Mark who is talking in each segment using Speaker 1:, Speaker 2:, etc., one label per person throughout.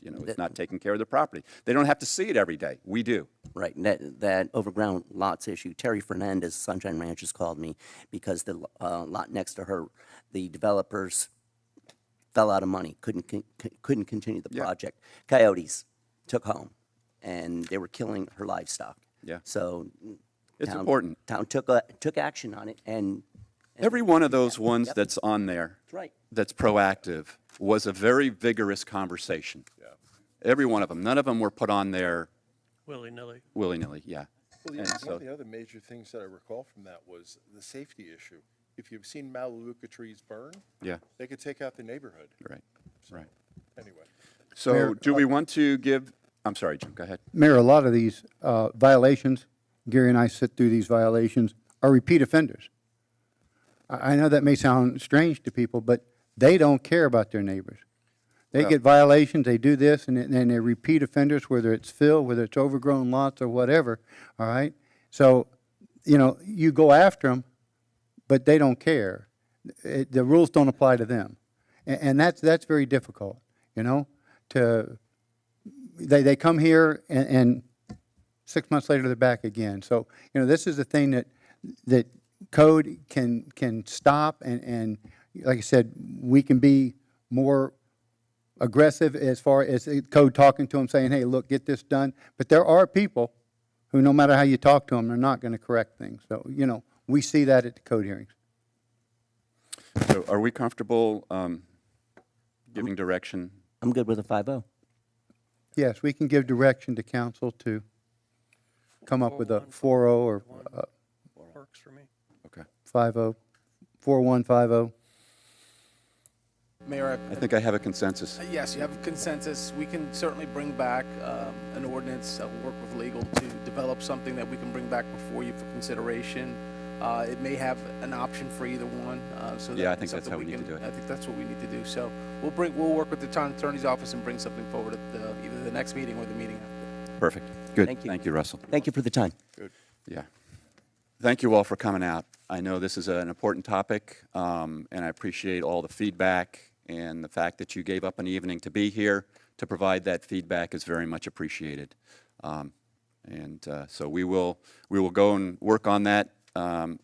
Speaker 1: you know, it's not taking care of the property. They don't have to see it every day. We do.
Speaker 2: Right, and that, that overground lots issue, Terry Fernandez, Sunshine Ranch, has called me because the uh, lot next to her, the developers fell out of money, couldn't, con- couldn't continue the project. Coyotes took home, and they were killing her livestock.
Speaker 1: Yeah.
Speaker 2: So.
Speaker 1: It's
Speaker 2: town-
Speaker 1: important.
Speaker 2: Town took, a- took action on it, and,
Speaker 1: Every one of those ones that's on there.
Speaker 2: right.
Speaker 1: That's proactive was a very vigorous conversation. Every one of them. None of them were put on there
Speaker 3: willy-nilly.
Speaker 1: willy-nilly, yeah.
Speaker 4: Well,
Speaker 1: And
Speaker 4: the- One
Speaker 1: so-
Speaker 4: of the other major things that I recall from that was the safety issue. If you've seen Melaleuca trees burn.
Speaker 1: Yeah.
Speaker 4: They could take out the neighborhood.
Speaker 1: Right, right. uh,
Speaker 4: Anyway.
Speaker 1: So do we want to give, I'm sorry, Jim, go ahead.
Speaker 5: Mayor, a lot of these uh, violations, Gary and I sit through these violations, are repeat offenders. I I know that may sound strange to people, but they don't care about their neighbors. They get violations, they do this, and then they're repeat offenders, whether it's fill, whether it's overgrown lots or whatever, all right? So, you know, you go after them, but they don't care. It- The rules don't apply to them. A- And that's, that's very difficult, you know, to, they, they come here and, and six months later they're back again. So, you know, this is the thing that, that code can, can stop and, and like I said, we can be more aggressive as far as the code talking to them, saying, hey, look, get this done. But there are people who, no matter how you talk to them, they're not going to correct things. So, you know, we see that at the code hearings.
Speaker 1: So are we comfortable um, giving direction?
Speaker 2: I'm good with a oh. five-oh.
Speaker 5: Yes, we can give direction to council to come up with a 4-0 or uh,
Speaker 3: Works for me.
Speaker 1: Okay.
Speaker 5: 5-0, 4150.
Speaker 6: Mayor,
Speaker 1: I think I have a consensus.
Speaker 6: I- yes, you have consensus. We can certainly bring back um, an ordinance, uh, we'll work with legal to develop something that we can bring back before you for consideration. Uh, It may have an option for either one, uh, so. that
Speaker 1: Yeah, I
Speaker 6: can be
Speaker 1: think that's
Speaker 6: something
Speaker 1: how we need to
Speaker 6: can-
Speaker 1: do it.
Speaker 6: I think that's what we need to do. So we'll bring, we'll work with the town attorney's office and bring something forward at the- either the next meeting or the meeting after.
Speaker 1: Perfect. Good.
Speaker 2: Thank you.
Speaker 1: Thank you, Russell.
Speaker 2: Thank you for the time.
Speaker 1: Yeah. Thank you all for coming out. I know this is an important topic, um, and I appreciate all the feedback and the fact that you gave up an evening to be here to provide that feedback is very much appreciated. Um, and uh, so we will we will go and work on that um,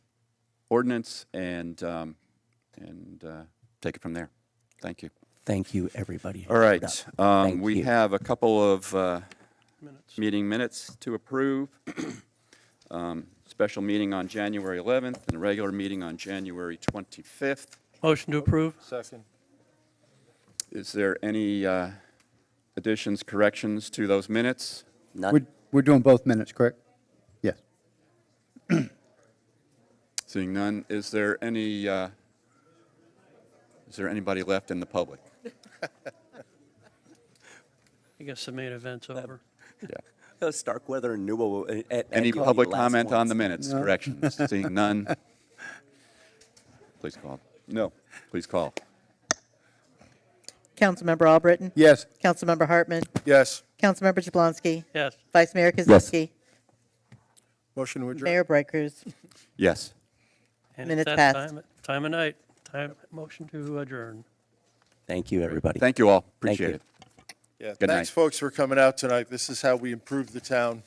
Speaker 1: ordinance and um, and uh, take it from there. Thank you.
Speaker 2: Thank you, everybody. who
Speaker 1: All
Speaker 2: showed
Speaker 1: right,
Speaker 2: up.
Speaker 1: um,
Speaker 2: Thank
Speaker 1: we
Speaker 2: you.
Speaker 1: have a couple of uh, meeting minutes to approve. Um, Special meeting on January 11th and a regular meeting on January 25th.
Speaker 3: Motion to approve?
Speaker 4: Second.
Speaker 1: Is there any uh, additions, corrections to those minutes?
Speaker 2: None-
Speaker 5: We're, we're doing both minutes, correct? Yes.
Speaker 1: Seeing none, is there any, uh, is there anybody left in the public?
Speaker 3: I guess the main event's over.
Speaker 1: Yeah.
Speaker 2: Uh, Starkweather and Newell. uh, at- at
Speaker 1: Any
Speaker 2: you were the
Speaker 1: public
Speaker 2: last
Speaker 1: comment on
Speaker 2: ones.
Speaker 1: the minutes, corrections? Seeing none? Please call. No, please call.
Speaker 7: Councilmember Albritton?
Speaker 5: Yes.
Speaker 7: Councilmember Hartman?
Speaker 4: Yes.
Speaker 7: Councilmember Jablonski,
Speaker 3: Yes,
Speaker 7: Vice Mayor Kaczynski?
Speaker 4: Motion to adjourn.
Speaker 7: Mayor Bright Cruz?
Speaker 1: Yes.
Speaker 3: and it's
Speaker 7: Minutes
Speaker 3: that
Speaker 7: passed.
Speaker 3: time, time of night, time, motion to adjourn.
Speaker 2: Thank you, everybody.
Speaker 1: Thank you all.
Speaker 2: Thank you.
Speaker 1: Appreciate it.
Speaker 4: Yeah,
Speaker 1: Good
Speaker 4: thanks,
Speaker 1: night.
Speaker 4: folks, for coming out tonight. This is how we improve the town.